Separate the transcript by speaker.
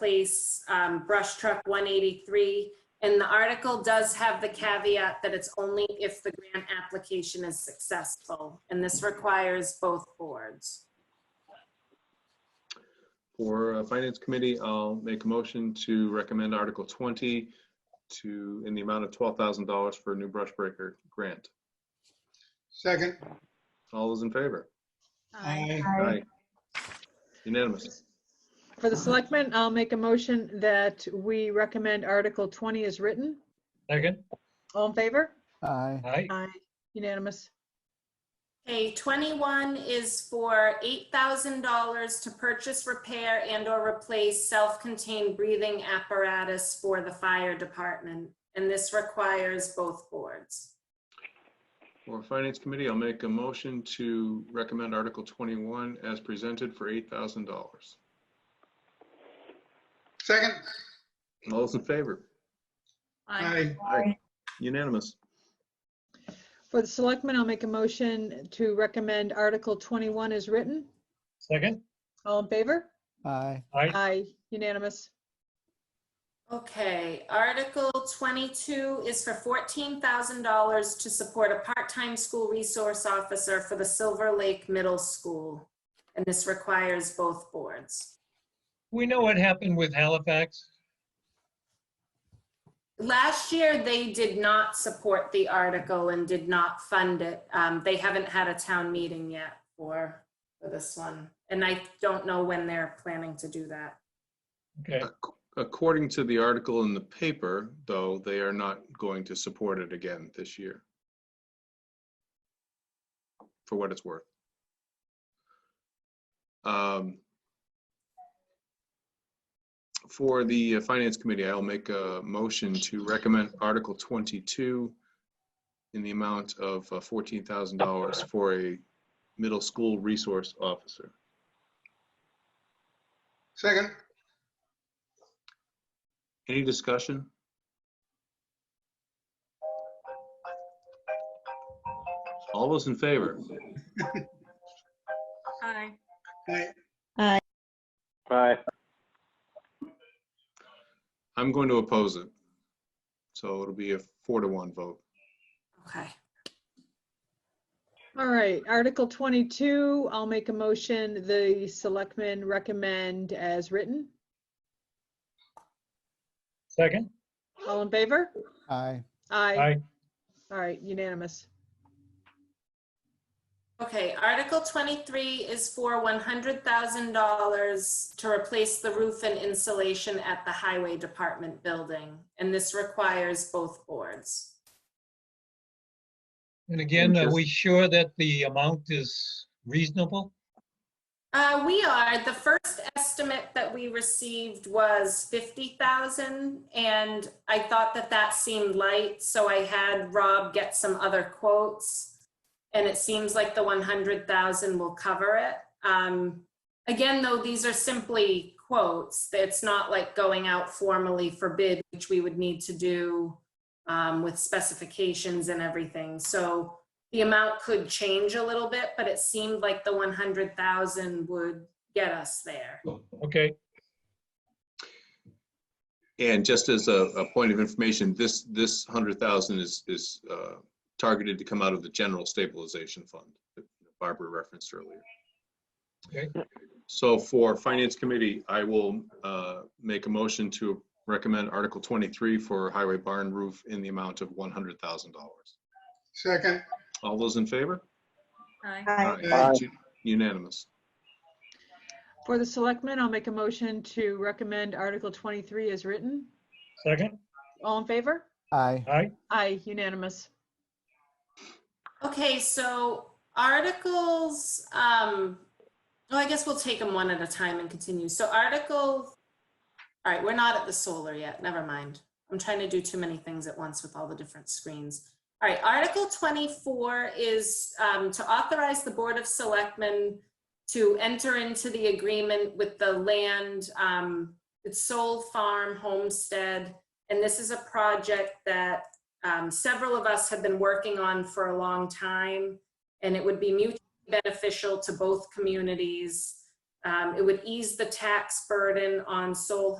Speaker 1: replace um, brush truck 183. And the article does have the caveat that it's only if the grant application is successful. And this requires both boards.
Speaker 2: For uh, Finance Committee, I'll make a motion to recommend Article 20 to, in the amount of $12,000 for a new brush breaker grant.
Speaker 3: Second.
Speaker 2: All those in favor? Aye. Unanimous.
Speaker 4: For the selectmen, I'll make a motion that we recommend Article 20 is written.
Speaker 5: Second,
Speaker 4: All in favor?
Speaker 6: Aye.
Speaker 5: aye,
Speaker 4: Aye. Unanimous.
Speaker 1: Okay, 21 is for $8,000 to purchase, repair, and/or replace self-contained breathing apparatus for the fire department. And this requires both boards.
Speaker 2: For Finance Committee, I'll make a motion to recommend Article 21 as presented for $8,000. All
Speaker 3: Second.
Speaker 2: those in favor?
Speaker 3: Aye.
Speaker 2: Aye. Unanimous.
Speaker 4: For the selectmen, I'll make a motion to recommend Article 21 is written.
Speaker 5: second,
Speaker 4: All in favor?
Speaker 6: Aye.
Speaker 5: aye,
Speaker 4: Aye. Unanimous.
Speaker 1: Okay, Article 22 is for $14,000 to support a part-time school resource officer for the Silver Lake Middle School. And this requires both boards.
Speaker 5: we know what happened with Halifax.
Speaker 1: Last year, they did not support the article and did not fund it. Um, They haven't had a town meeting yet for, for this one. And I don't know when they're planning to do that.
Speaker 5: Okay,
Speaker 2: Ac- According to the article in the paper, though, they are not going to support it again this year. For what it's worth. Um, For the uh, Finance Committee, I'll make a motion to recommend Article 22 in the amount of uh, $14,000 for a middle school resource officer.
Speaker 3: Second.
Speaker 2: Any discussion? All those in favor?
Speaker 1: Hi.
Speaker 3: Aye.
Speaker 7: Aye.
Speaker 2: I'm going to oppose it. So it'll be a four to one vote.
Speaker 1: Okay.
Speaker 4: All right, Article 22, I'll make a motion the selectmen recommend as written.
Speaker 5: second,
Speaker 4: All in favor?
Speaker 6: Aye.
Speaker 4: Aye.
Speaker 5: aye,
Speaker 4: All right, unanimous.
Speaker 1: Okay, Article 23 is for $100,000 to replace the roof and insulation at the Highway Department building. And this requires both boards.
Speaker 5: and again, are we sure that the amount is reasonable?
Speaker 1: Uh, we are, the first estimate that we received was 50,000 and I thought that that seemed light, so I had Rob get some other quotes. And it seems like the 100,000 will cover it. Um, again, though, these are simply quotes. It's not like going out formally for bid, which we would need to do um, with specifications and everything. So the amount could change a little bit, but it seemed like the 100,000 would get us there.
Speaker 5: Okay,
Speaker 2: And just as a, a point of information, this, this hundred thousand is, is uh, targeted to come out of the general stabilization fund that Barbara referenced earlier.
Speaker 5: Okay.
Speaker 2: So for Finance Committee, I will uh, make a motion to recommend Article twenty-three for highway barn roof in the amount of one hundred thousand dollars.
Speaker 3: Second.
Speaker 2: All those in favor?
Speaker 3: Aye.
Speaker 2: Unanimous.
Speaker 4: For the selectmen, I'll make a motion to recommend Article 23 as written.
Speaker 5: second,
Speaker 4: All in favor?
Speaker 6: Aye.
Speaker 5: aye,
Speaker 4: Aye, unanimous.
Speaker 1: Okay, so articles, um, well, I guess we'll take them one at a time and continue. So article, all right, we're not at the solar yet, never mind. I'm trying to do too many things at once with all the different screens. All right, Article 24 is um, to authorize the Board of Selectmen to enter into the agreement with the land, um, it's Soul Farm Homestead. And this is a project that um, several of us have been working on for a long time, and it would be mutually beneficial to both communities. Um, Um, It would ease the tax burden on Soul